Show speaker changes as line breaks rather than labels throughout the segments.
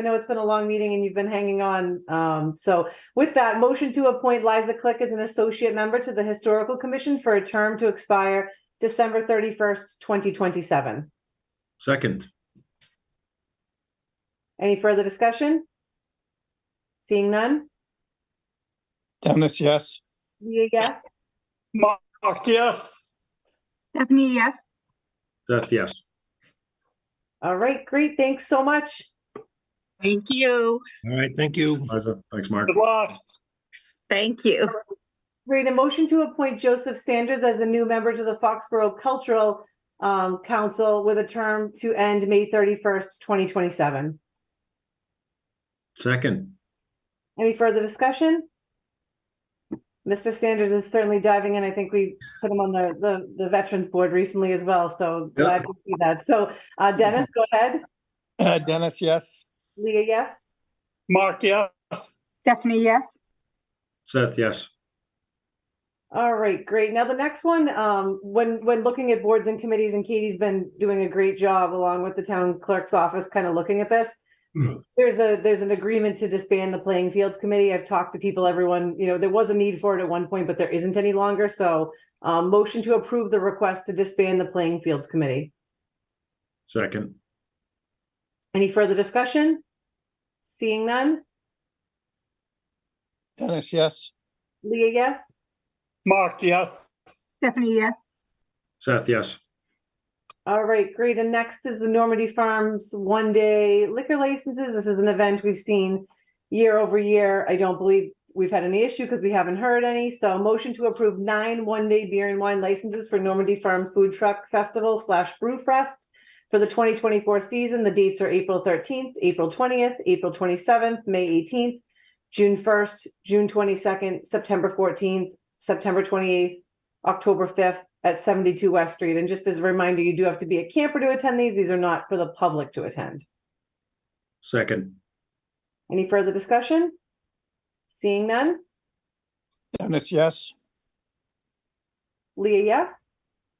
I know it's been a long meeting and you've been hanging on. Um, so with that, motion to appoint Liza Click as an associate member to the Historical Commission for a term to expire December thirty-first, twenty twenty-seven.
Second,
Any further discussion? Seeing none?
Dennis, yes.
Leah, yes?
Mark, yes.
Stephanie, yes.
Seth, yes.
All right, great. Thanks so much.
Thank you.
All right, thank you.
Liza, thanks, Mark.
Good luck.
Thank you.
Great. A motion to appoint Joseph Sanders as a new member to the Foxborough Cultural um, Council with a term to end May thirty-first, twenty twenty-seven.
Second,
Any further discussion? Mr. Sanders is certainly diving in. I think we put him on the, the, the Veterans Board recently as well, so
Yeah.
glad to see that. So, uh, Dennis, go ahead.
Uh, Dennis, yes.
Leah, yes?
Mark, yes.
Stephanie, yes.
Seth, yes.
All right, great. Now the next one, um, when, when looking at boards and committees, and Katie's been doing a great job along with the town clerk's office, kind of looking at this.
Mhm.
There's a, there's an agreement to disband the playing fields committee. I've talked to people, everyone, you know, there was a need for it at one point, but there isn't any longer, so. Um, motion to approve the request to disband the playing fields committee.
Second,
Any further discussion? Seeing none?
Dennis, yes.
Leah, yes?
Mark, yes.
Stephanie, yes.
Seth, yes.
All right, great. And next is the Normandy Farms one day liquor licenses. This is an event we've seen year over year. I don't believe we've had any issue because we haven't heard any. So motion to approve nine one day beer and wine licenses for Normandy Farm Food Truck Festival slash Brew Fest for the twenty twenty four season. The dates are April thirteenth, April twentieth, April twenty seventh, May eighteenth, June first, June twenty second, September fourteenth, September twenty eighth, October fifth at seventy-two West Street. And just as a reminder, you do have to be a camper to attend these. These are not for the public to attend.
Second,
Any further discussion? Seeing none?
Dennis, yes.
Leah, yes?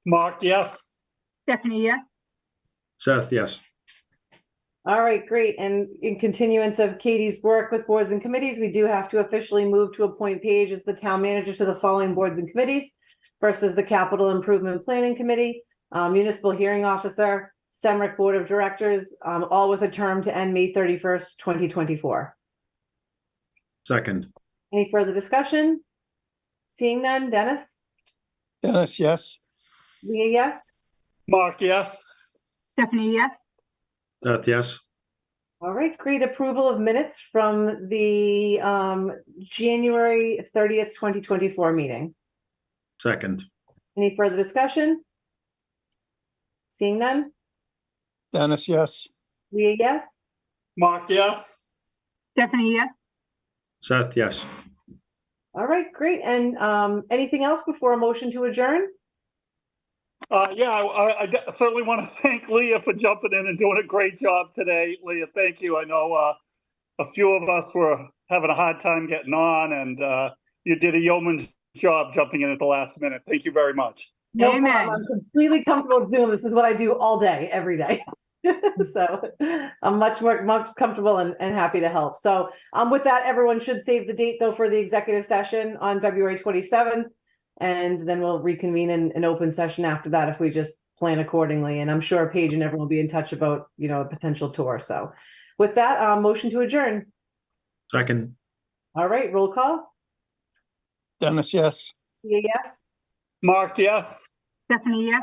Mark, yes.
Stephanie, yes.
Seth, yes.
All right, great. And in continuance of Katie's work with boards and committees, we do have to officially move to appoint Paige as the town manager to the following boards and committees versus the Capital Improvement Planning Committee, um, Municipal Hearing Officer, Semric Board of Directors, um, all with a term to end May thirty-first, twenty twenty-four.
Second,
Any further discussion? Seeing none, Dennis?
Dennis, yes.
Leah, yes?
Mark, yes.
Stephanie, yes.
Seth, yes.
All right, great approval of minutes from the um January thirtieth, twenty twenty-four meeting.
Second,
Any further discussion? Seeing none,
Dennis, yes.
Leah, yes?
Mark, yes.
Stephanie, yes.
Seth, yes.
All right, great. And um anything else before a motion to adjourn?
Uh, yeah, I, I de- certainly want to thank Leah for jumping in and doing a great job today. Leah, thank you. I know, uh, a few of us were having a hard time getting on and, uh, you did a yeoman's job jumping in at the last minute. Thank you very much.
No
Amen.
problem. I'm completely comfortable with Zoom. This is what I do all day, every day. so I'm much more much comfortable and, and happy to help. So um, with that, everyone should save the date though for the executive session on February 27th. And then we'll reconvene in an open session after that if we just plan accordingly. And I'm sure Paige and everyone will be in touch about, you know, a potential tour. So with that, um, motion to adjourn.
Second,
All right, roll call.
Dennis, yes.
Leah, yes.
Mark, yes.
Stephanie, yes.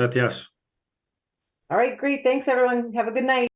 Seth, yes.
All right, great. Thanks, everyone. Have a good night.